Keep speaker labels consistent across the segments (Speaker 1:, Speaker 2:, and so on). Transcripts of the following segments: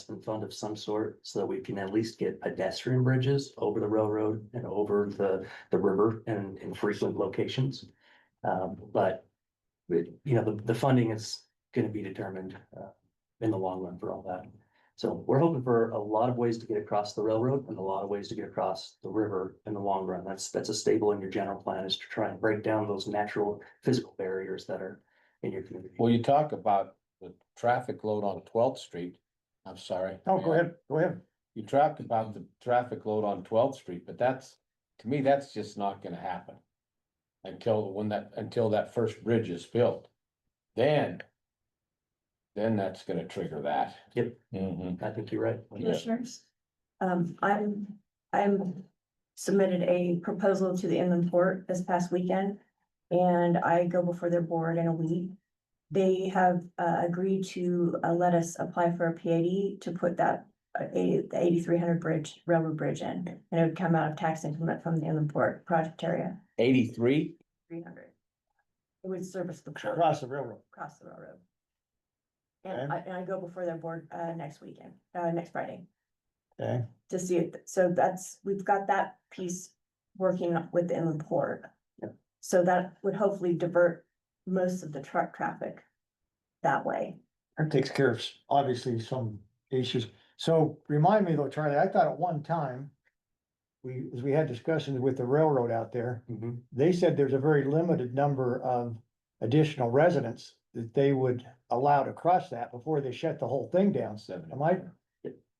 Speaker 1: investment fund of some sort so that we can at least get pedestrian bridges over the railroad and over the, the river and in frequent locations. Um, but, but, you know, the, the funding is gonna be determined, uh, in the long run for all that. So we're hoping for a lot of ways to get across the railroad and a lot of ways to get across the river in the long run. That's, that's a staple in your general plan is to try and break down those natural physical barriers that are in your community.
Speaker 2: Well, you talk about the traffic load on Twelfth Street. I'm sorry.
Speaker 3: No, Oh, go ahead, go ahead.
Speaker 2: You talked about the traffic load on Twelfth Street, but that's, to me, that's just not gonna happen. Until when that, until that first bridge is built. Then. Then that's gonna trigger that.
Speaker 1: Yep.
Speaker 2: Mhm.
Speaker 1: I think you're right.
Speaker 4: commissioners. Um, I'm, I'm submitted a proposal to the inland port this past weekend. And I go before their board in a week. They have uh, agreed to uh, let us apply for a PAD to put that uh, eighty, the eighty-three hundred bridge, railroad bridge in. And it would come out of tax increment from the inland port project area,
Speaker 2: Eighty-three?
Speaker 4: three hundred. It would service the port
Speaker 3: Across the railroad.
Speaker 4: across the railroad. And I, and I go before their board, uh, next weekend, uh, next Friday.
Speaker 3: Okay.
Speaker 4: To see it, so that's, we've got that piece working with the inland port. So that would hopefully divert most of the truck traffic that way.
Speaker 3: That takes care of, obviously, some issues. So remind me though, Charlie, I thought at one time. We, as we had discussions with the railroad out there,
Speaker 1: Mhm.
Speaker 3: they said there's a very limited number of additional residents. That they would allow to cross that before they shut the whole thing down.
Speaker 2: Seven.
Speaker 3: Am I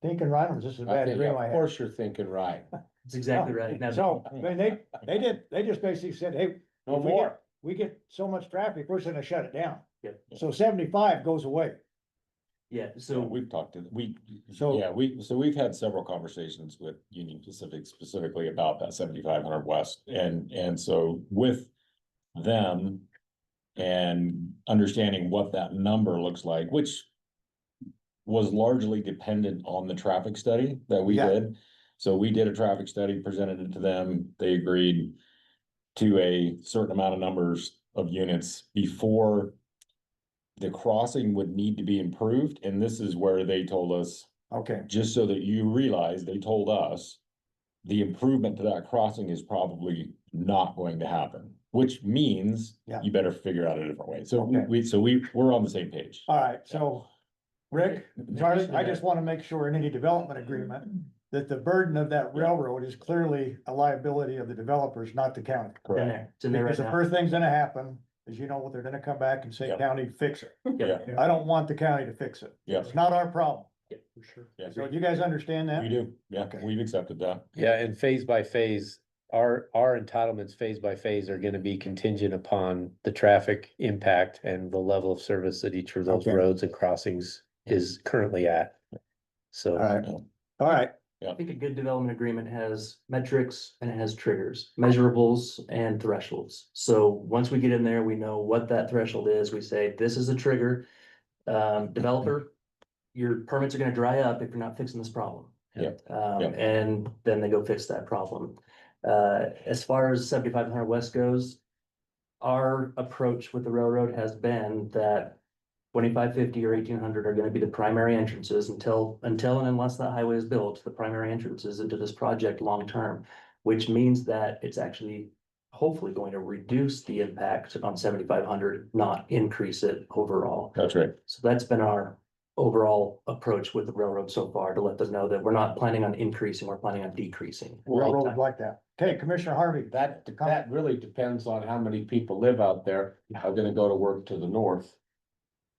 Speaker 3: thinking right? Or is this a
Speaker 2: I
Speaker 3: bad
Speaker 2: think,
Speaker 3: dream I
Speaker 2: of
Speaker 3: had?
Speaker 2: course you're thinking right.
Speaker 1: That's exactly right. Now,
Speaker 3: So, I mean, they, they did, they just basically said, hey,
Speaker 2: No
Speaker 3: If we
Speaker 2: more.
Speaker 3: we get so much traffic, we're just gonna shut it down.
Speaker 1: Yep.
Speaker 3: So seventy-five goes away.
Speaker 1: Yeah,
Speaker 5: So
Speaker 1: so
Speaker 5: we've talked to, we,
Speaker 3: So-
Speaker 5: yeah, we, so we've had several conversations with Union Pacific specifically about that seventy-five hundred west and, and so with them and understanding what that number looks like, which was largely dependent on the traffic study that we
Speaker 3: Yeah.
Speaker 5: did. So we did a traffic study, presented it to them, they agreed to a certain amount of numbers of units before the crossing would need to be improved, and this is where they told us,
Speaker 3: Okay,
Speaker 5: just so that you realize, they told us the improvement to that crossing is probably not going to happen, which means
Speaker 3: Yeah.
Speaker 5: you better figure out a different way. So we-
Speaker 3: Okay.
Speaker 5: we, so we, we're on the same page.
Speaker 3: all right, so Rick, Charlie, I just wanna make sure in any development agreement that the burden of that railroad is clearly a liability of the developers, not the county.
Speaker 1: it's in
Speaker 5: Correct.
Speaker 1: there, it's in there right
Speaker 3: Because the
Speaker 1: now.
Speaker 3: first thing's gonna happen is you know what, they're gonna come back and say,
Speaker 5: Yeah.
Speaker 3: county, fix it.
Speaker 1: Yeah.
Speaker 3: I don't want the county to fix it.
Speaker 5: Yeah.
Speaker 3: It's not our problem.
Speaker 1: Yeah, for sure.
Speaker 5: Yeah.
Speaker 3: So you guys understand that?
Speaker 5: We do, yeah,
Speaker 3: Okay.
Speaker 5: we've accepted that.
Speaker 2: Yeah, and phase by phase, our, our entitlements phase by phase are gonna be contingent upon the traffic impact and the level of service that each of those
Speaker 3: Okay.
Speaker 2: roads and crossings is currently at. So.
Speaker 3: All right, all right,
Speaker 1: I think a good development agreement has metrics and it has triggers, measurables and thresholds. So once we get in there, we know what that threshold is. We say, this is a trigger. Um, developer, your permits are gonna dry up if you're not fixing this problem.
Speaker 2: Yeah.
Speaker 1: Um,
Speaker 5: Yeah.
Speaker 1: and then they go fix that problem. Uh, as far as seventy-five hundred west goes, our approach with the railroad has been that twenty-five fifty or eighteen hundred are gonna be the primary entrances until, until and unless that highway is built, the primary entrances into this project long-term. Which means that it's actually hopefully going to reduce the impact on seventy-five hundred, not increase it overall.
Speaker 5: That's right.
Speaker 1: So that's been our overall approach with the railroad so far, to let them know that we're not planning on increasing, we're planning on decreasing.
Speaker 3: railroads like that. Okay, Commissioner Harvey.
Speaker 2: That,
Speaker 3: to come-
Speaker 2: that really depends on how many people live out there, are gonna go to work to the north.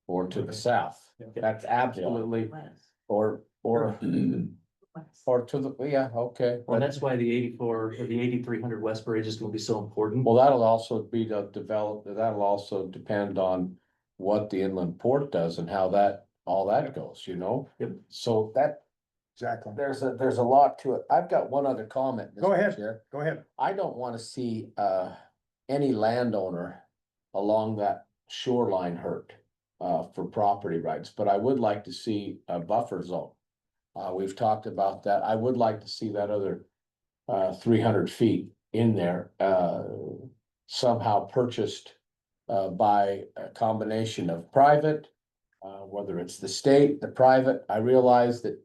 Speaker 2: Or to the south,
Speaker 3: Yeah.
Speaker 2: that's absolutely, or, or, or to the, yeah, okay.
Speaker 1: Well, that's why the eighty-four or the eighty-three hundred West Bridge is gonna be so important.
Speaker 2: Well, that'll also be the develop, that'll also depend on what the inland port does and how that, all that goes, you know?
Speaker 1: Yep.
Speaker 2: So that,
Speaker 3: Exactly.
Speaker 2: there's a, there's a lot to it. I've got one other comment.
Speaker 3: Go
Speaker 2: Mr.
Speaker 3: ahead.
Speaker 2: Chair.
Speaker 3: Go ahead.
Speaker 2: I don't wanna see, uh, any landowner along that shoreline hurt, uh, for property rights, but I would like to see a buffer zone. Uh, we've talked about that. I would like to see that other, uh, three hundred feet in there, uh, somehow purchased, uh, by a combination of private, uh, whether it's the state, the private, I realize that